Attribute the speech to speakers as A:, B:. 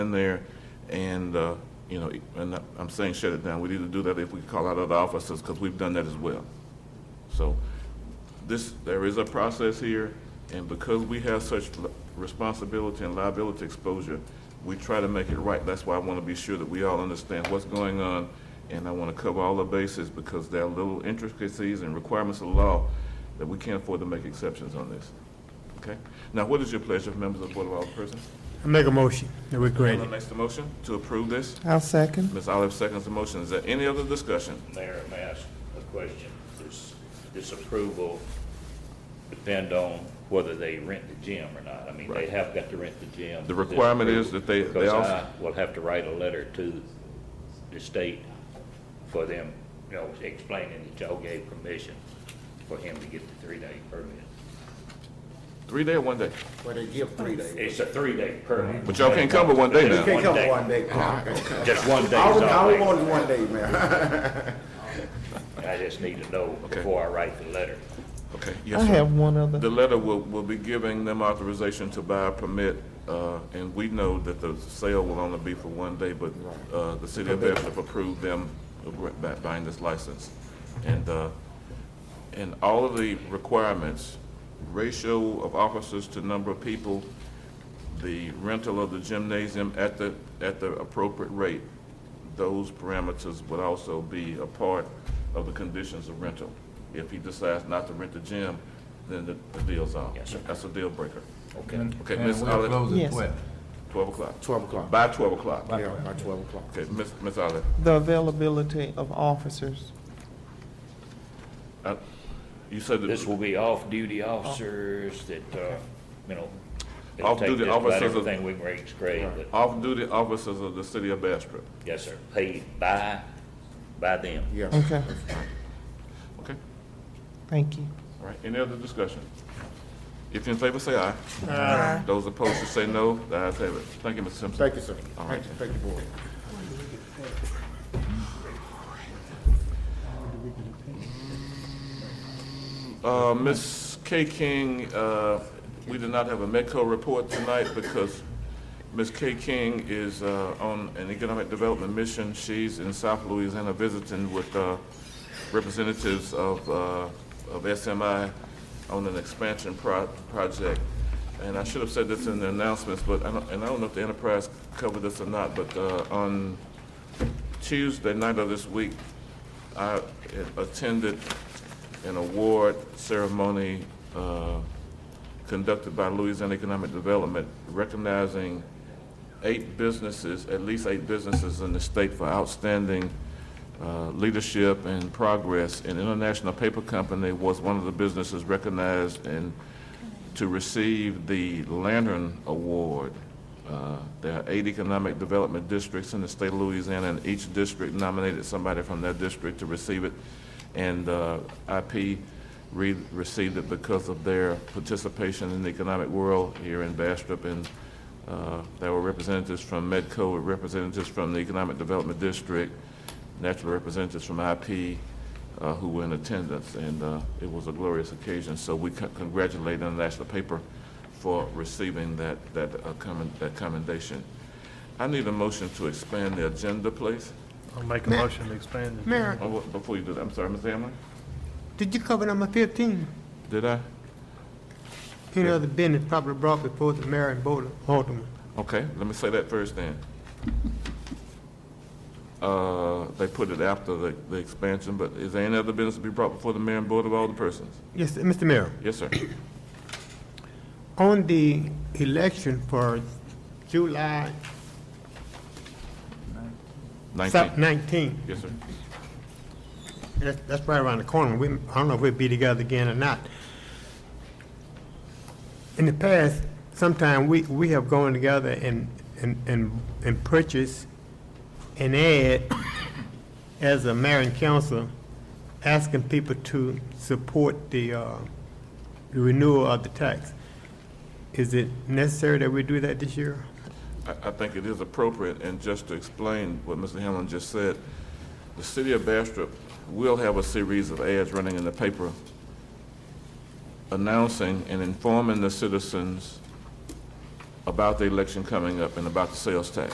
A: in there and, uh, you know, and I'm saying shut it down. We need to do that if we call out other officers, because we've done that as well. So this, there is a process here, and because we have such l- responsibility and liability exposure, we try to make it right. That's why I want to be sure that we all understand what's going on, and I want to cover all the bases, because there are little intricacies and requirements of the law that we can't afford to make exceptions on this. Okay? Now, what is your pleasure, members of the Board of Alderpersons?
B: I Make a motion that we grant
A: Ellen
B: it.
A: makes the motion to approve this.
C: I'll second.
A: Ms. Olive seconds the motion. Is there any other discussion?
D: Mayor, may I ask a question? Does this approval depend on whether they rent the gym or not? I mean, they
A: Right.
D: have got to rent the gym.
A: The requirement is that they- they
D: Because uh,
A: also-
D: I will have to write a letter to the state for them, you know, explaining that y'all gave permission for him to get the three-day permit.
A: Three day or one day?
E: Well, they give three days.
D: It's a three-day permit.
A: But y'all can't come with one day now.
D: Just
E: Can't come
D: day.
E: one day.
D: Just one day
E: I
D: is
E: would, I
D: all
E: would
D: they-
E: want it one day, man.
D: I just need to know
A: Okay.
D: before I write the letter.
A: Okay,
C: I
A: yes, sir.
C: have one
A: The
C: other.
A: letter will, will be giving them authorization to buy a permit, uh, and we know that the sale will only be for one day, but, uh, the city of Bedford approved them by buying this license. And, uh, and all of the requirements, ratio of officers to number of people, the rental of the gymnasium at the, at the appropriate rate, those parameters would also be a part of the conditions of rental. If he decides not to rent the gym, then the, the deal's on.
D: Yes, sir.
A: That's a deal breaker.
D: Okay.
A: Okay, Ms. Olive,
C: Yes.
A: twelve o'clock.
E: Twelve o'clock.
A: By twelve o'clock.
E: Yeah, by twelve o'clock.
A: Okay, Ms. Ms. Olive,
C: The availability of officers.
A: I- uh, you said that.
D: This will be off-duty officers
A: Oh.
D: that, uh, you know, they'll take
A: Off-duty
D: just about
A: officers of-
D: everything we can raise grade, but,
A: Off-duty officers of the city of Bastrop.
D: yes, sir, paid by, by them.
E: Yes.
C: Okay,
A: Okay,
C: thank you.
A: all right, any other discussion? If you're in favor, say aye. Aye. Those opposed, should say no. The ayes have it. Thank you, Mr. Simpson.
E: Thank you, sir.
A: All right.
E: Thank you, thank you, board.
A: Uh, Ms. K. King, uh, we did not have a MEDCO report tonight because Ms. K. King is uh, on an economic development mission. She's in South Louisiana visiting with uh, representatives of uh, of SMI on an expansion pro- project. And I should have said this in the announcements, but I don't, and I don't know if the Enterprise covered this or not, but uh, on Tuesday night of this week, I attended an award ceremony uh, conducted by Louisiana Economic Development recognizing eight businesses, at least eight businesses in the state for outstanding uh, leadership and progress. And International Paper Company was one of the businesses recognized and to receive the Lantern Award. Uh, There are eight economic development districts in the state of Louisiana, and each district nominated somebody from their district to receive it. And uh, IP re- received it because of their participation in the economic world here in Bastrop. And uh, there were representatives from Medco, representatives from the Economic Development District, natural representatives from IP, uh, who were in attendance, and uh, it was a glorious occasion. So we co- congratulate International Paper for receiving that, that uh, commen- that commendation. I need a motion to expand the agenda, please.
B: I'll make a motion to expand it.
F: Mayor,
A: Oh, wha- Before you do that, I'm sorry, Ms. Hamlin,
F: did you cover number fifteen?
A: did I?
F: Any other business probably brought before the mayor and board of aldermen?
A: Okay, let me say that first then. Uh, They put it after the, the expansion, but is there any other business to be brought before the mayor and board of all the persons?
F: Yes, Mr. Mayor,
A: Yes, sir.
F: on the election for July
A: Nineteen.
F: nineteenth,
A: Yes, sir.
F: that's, that's right around the corner. We, I don't know if we'll be together again or not. In the past, sometime we, we have gone together and, and, and, and purchased an ad as a mayor and council, asking people to support the, uh, the renewal of the tax. Is it necessary that we do that this year?
A: I, I think it is appropriate, and just to explain what Mr. Hamlin just said, the city of Bastrop will have a series of ads running in the paper announcing and informing the citizens about the election coming up and about the sales tax.